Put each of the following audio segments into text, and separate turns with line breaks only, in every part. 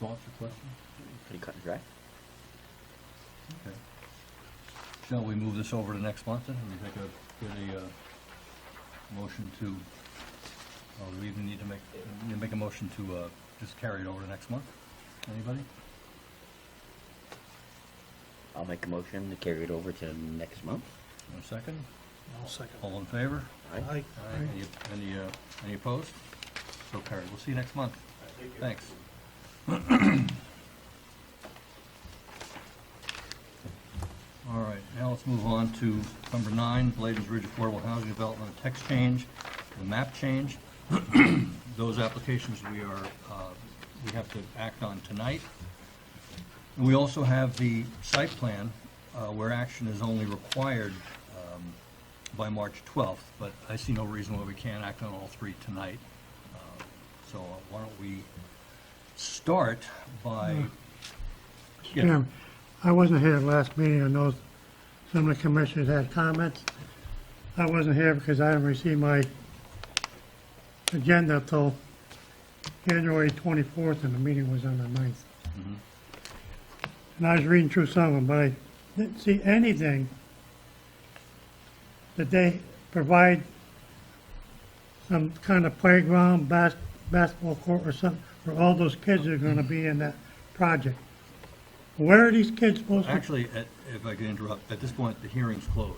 thoughts or questions?
Pretty cut and dry.
Okay. Shall we move this over to next month then? We take a, get a, uh, motion to, uh, we even need to make, need to make a motion to, uh, just carry it over to next month? Anybody?
I'll make a motion to carry it over to next month.
One second?
I'll second.
All in favor?
Aye.
Any, any, uh, any opposed? So carried. We'll see you next month. Thanks. All right, now let's move on to number nine, Bladen's Ridge Affordable Housing Development Text Change, the map change. Those applications we are, uh, we have to act on tonight. And we also have the site plan, uh, where action is only required um, by March 12th, but I see no reason why we can't act on all three tonight. Uh, So why don't we start by,
Hmm.
yeah,
Jim, I wasn't here at the last meeting, I know some of the commissioners had comments. I wasn't here because I didn't receive my agenda till January 24th, and the meeting was on the 9th. And I was reading through some of them, but I didn't see anything that they provide some kind of playground, bas- basketball court or something, for all those kids that are gonna be in that project. Where are these kids supposed to?
actually, at- if I could interrupt, at this point, the hearing's closed,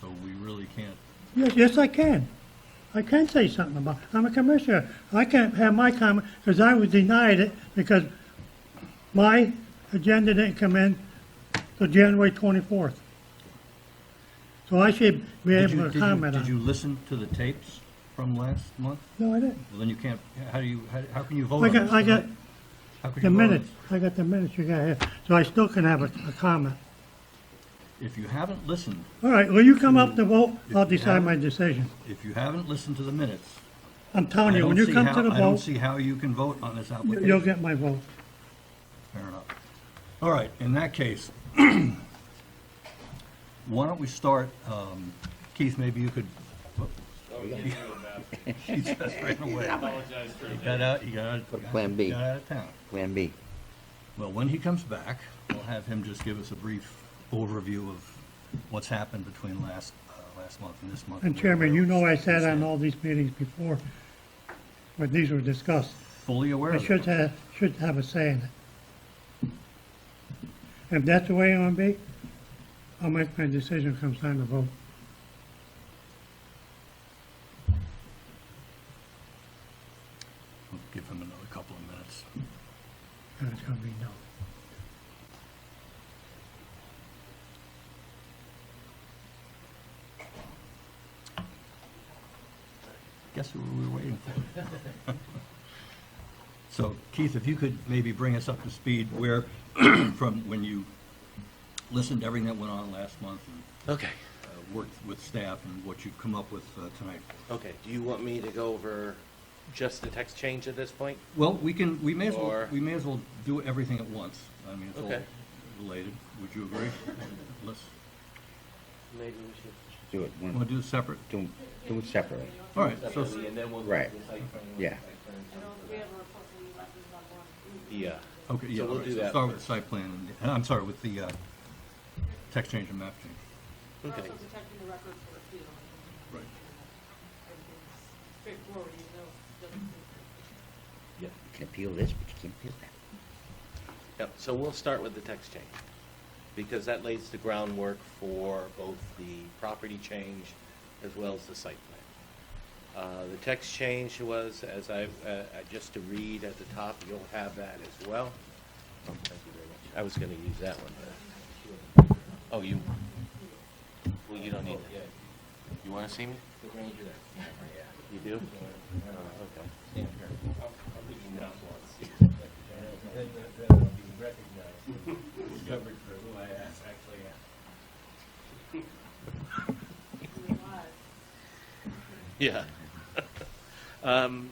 so we really can't,
Yes, yes, I can. I can say something about, I'm a commissioner. I can't have my comment, because I was denied it, because my agenda didn't come in till January 24th. So I should be
Did you-
able
did
to
you-
comment
Did
on
you
it.
listen to the tapes from last month?
No, I didn't.
Well, then you can't, how do you, how- how can you vote
I
on this?
got, I got
tonight? How could
the
you vote on
minutes,
this?
I got the minutes you got here, so I still can have a, a comment.
If you haven't listened,
All right, will you come up to vote? I'll
If you
decide
have-
my decision.
if you haven't listened to the minutes,
I'm
I
telling you, when
don't
you
see
come
how-
to the
I don't
vote,
see how you can vote on this application.
you'll get my vote.
Fair enough. All right, in that case, why don't we start, um, Keith, maybe you could. She just ran away. He got out, he got out.
Go to Plan B.
he Got out of town.
Plan B.
Well, when he comes back, we'll have him just give us a brief overview of what's happened between last, uh, last month and this month.
And
where-
Chairman,
where
you know I sat
stand.
on all these meetings before, when these were discussed.
Fully aware
I
of
should
it.
have, should have a say in it. If that's the way it want to be, I'll make my decision come time to vote.
We'll Give him another couple of minutes.
And it's going to be no.
Guess who we were waiting for? So Keith, if you could maybe bring us up to speed where, from when you listened to everything that went on last month and
Okay,
uh, worked with staff and what you've come up with uh, tonight.
okay. Do you want me to go over just the text change at this point?
Well, we can, we may as well,
Or-
we may as well do everything at once. I mean, it's all
Okay.
related. Would you agree? Let's,
Maybe we
Do it. one-
want to do it separate?
Do, do it separately.
All right, so,
And then we'll.
Right. Yeah.
Yeah.
okay, yeah,
So
all
we'll
right,
do
so
that
start with the
first.
site plan, and- and I'm sorry, with the uh, text change and map change.
Okay,
Right.
Straightforward, you know, doesn't-
yep,
You can appeal this, but you can't appeal that.
yep. So we'll start with the text change, because that lays the groundwork for both the property change as well as the site plan. Uh, the text change was, as I, uh, uh, just to read at the top, you'll have that as well. Oh, Thank you very much. I was gonna use that one. but- Oh, you, well, you don't need that. You wanna see me? You do? Oh, okay. Yeah. Um,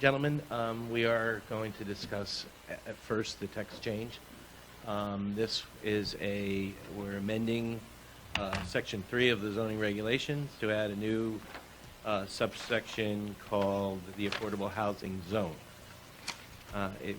Gentlemen, um, we are going to discuss a- at first the text change. Um, This is a, we're amending uh, Section 3 of the zoning regulations to add a new uh, subsection called the Affordable Housing Zone. Uh, It